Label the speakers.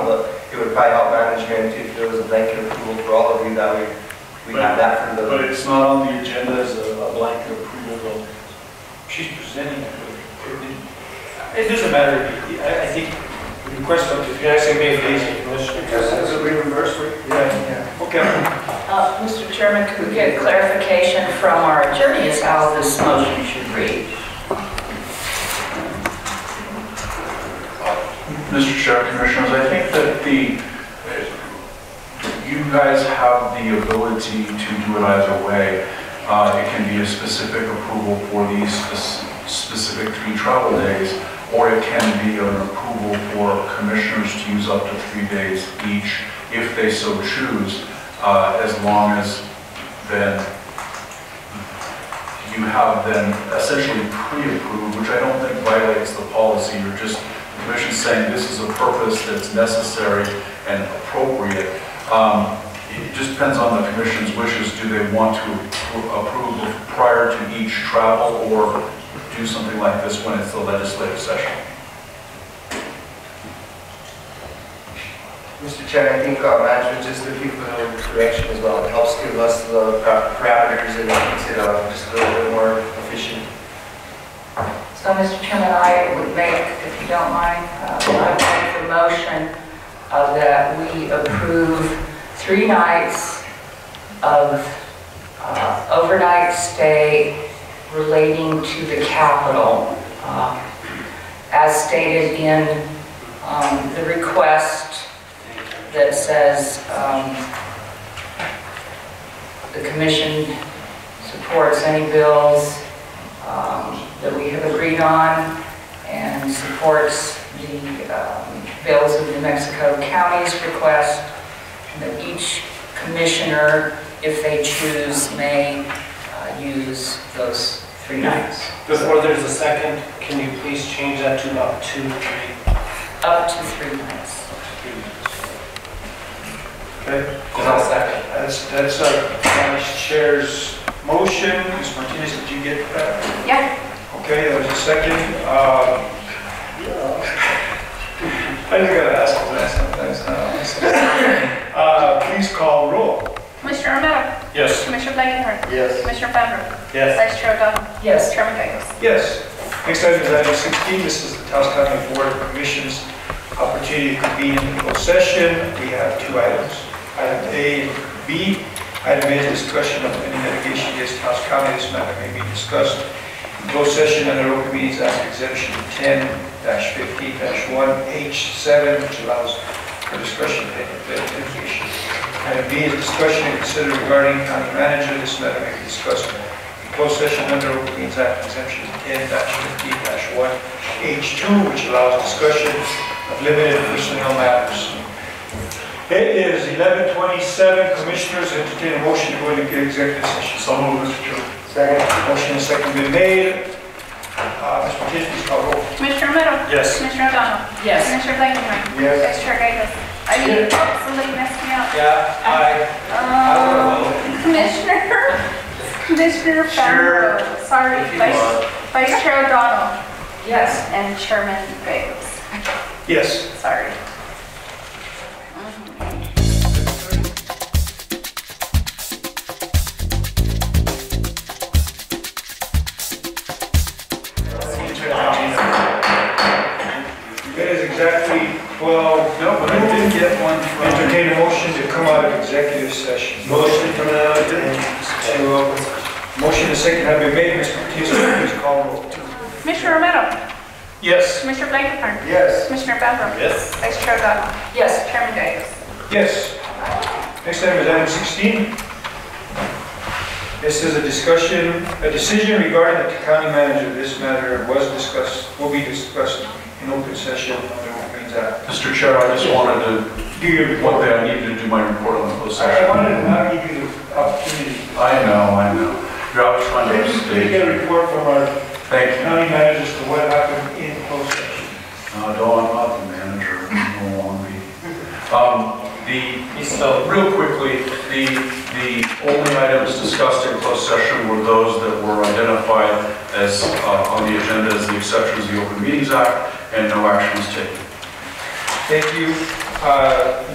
Speaker 1: but it would probably help management if there was a blanket approval for all of you that we, we have that for
Speaker 2: But
Speaker 1: the.
Speaker 2: it's not on the agenda as a a blanket approval.
Speaker 3: She's presenting it, but it- it doesn't matter, I, I think, the request of, if you actually made it easy, Commissioner.
Speaker 1: reimbursed, yeah.
Speaker 3: Okay,
Speaker 4: Uh, Mr. Chairman, could we get clarification from our attorney as how this motion should read?
Speaker 5: Mr. Chair, Commissioners, I think that the, you guys have the ability to do it either way. Uh, It can be a specific approval for these spec- specific three travel days, or it can be an approval for commissioners to use up to three days each, if they so choose, uh, as long as then you have then essentially pre-approved, which I don't think violates the policy, you're just the commission's saying this is a purpose that's necessary and appropriate. Um, It just depends on the commission's wishes. Do they want to appro- approve prior to each travel or do something like this when it's the legislative session?
Speaker 1: Mr. Chair, I think uh, management just looking for a little direction as well. It helps give us the pa- parameters and makes it uh, just a little bit more efficient.
Speaker 4: So, Mr. Chairman, I would make, if you don't mind, uh, I would make the motion uh, that we approve three nights of uh, overnight stay relating to the Capitol, uh, as stated in um, the request that says um, the commission supports any bills um, that we have agreed on and supports the um, bills of New Mexico County's request and that each commissioner, if they choose, may uh, use those three nights.
Speaker 3: before there's a second, can you please change that to about two, three?
Speaker 4: Up to three nights.
Speaker 2: Okay,
Speaker 1: second.
Speaker 2: that's, that's our vice chair's motion. Ms. Martinez, did you get that?
Speaker 4: Yeah.
Speaker 2: Okay, there was a second. um, I just gotta ask for that sometimes. huh? Uh, Please call roll.
Speaker 6: Commissioner Romero,
Speaker 2: Yes.
Speaker 6: Commissioner Blankenher,
Speaker 1: Yes.
Speaker 6: Commissioner Fabro,
Speaker 3: Yes.
Speaker 6: Vice Chair O'Donnell,
Speaker 4: Yes.
Speaker 6: Chairman Geigels.
Speaker 2: Yes. Next item is item 16. This is the Taos County Board of Commissions opportunity to convene in closed session. We have two items, item A and B. Item A is discussion of any litigation against Taos County. This matter may be discussed in closed session under Open Meetings Act Exemption 10-15-1H7, which allows for discussion of any litigation. Item B is discussion and consider regarding county manager. This matter may be discussed in closed session under Open Meetings Act Exemption 10-15-1H2, which allows discussion of limited personnel matters. It is 11:27, Commissioners, entertain a motion to go into executive session. So moved, Mr. Chairman.
Speaker 1: Second.
Speaker 2: Motion and second been made. Uh, Ms. Martinez, please call roll.
Speaker 6: Commissioner Romero.
Speaker 3: Yes.
Speaker 6: Commissioner O'Donnell.
Speaker 4: Yes.
Speaker 6: Commissioner Blankenher,
Speaker 1: Yes.
Speaker 6: Vice Chair Geigels. I mean, oh, somebody messed me up.
Speaker 3: Yeah, I,
Speaker 6: Um, Commissioner, Commissioner
Speaker 3: Sure.
Speaker 6: Fabro, sorry,
Speaker 3: If you
Speaker 6: Vice Vice Chair O'Donnell,
Speaker 4: Yes.
Speaker 6: and Chairman Geigels,
Speaker 2: Yes.
Speaker 6: sorry.
Speaker 2: It is exactly 12, no, but I did get one from... Entertain a motion to come out of executive session. Motion from out of Motion and second have been made, Mr. Martinez, please call roll.
Speaker 6: Commissioner Romero,
Speaker 2: Yes.
Speaker 6: Commissioner Blankenher,
Speaker 1: Yes.
Speaker 6: Commissioner Fabro. Yes. Vice Chair O'Donnell,
Speaker 4: Yes.
Speaker 6: Chairman Geigels.
Speaker 2: Yes. Next item is item 16. This is a discussion, a decision regarding the county manager. This matter was discussed, will be discussed in open session under Open Meetings Act.
Speaker 5: Mr. Chair, I just wanted to,
Speaker 2: Do your
Speaker 5: one
Speaker 2: report.
Speaker 5: day I needed to do my report on the closed
Speaker 2: I
Speaker 5: session.
Speaker 2: wanted to now give you the opportunity
Speaker 5: I know, I know. You're always trying to
Speaker 2: We
Speaker 5: upstage.
Speaker 2: get a report from our
Speaker 5: Thank you.
Speaker 2: county managers to what happened in closed session.
Speaker 5: No, no, I'm not the manager, I'm no longer. Um, the, real quickly, the, the only items discussed in closed session were those that were identified as, uh, on the agenda as the exceptions of the Open Meetings Act, and no action was taken.
Speaker 2: Thank you. uh,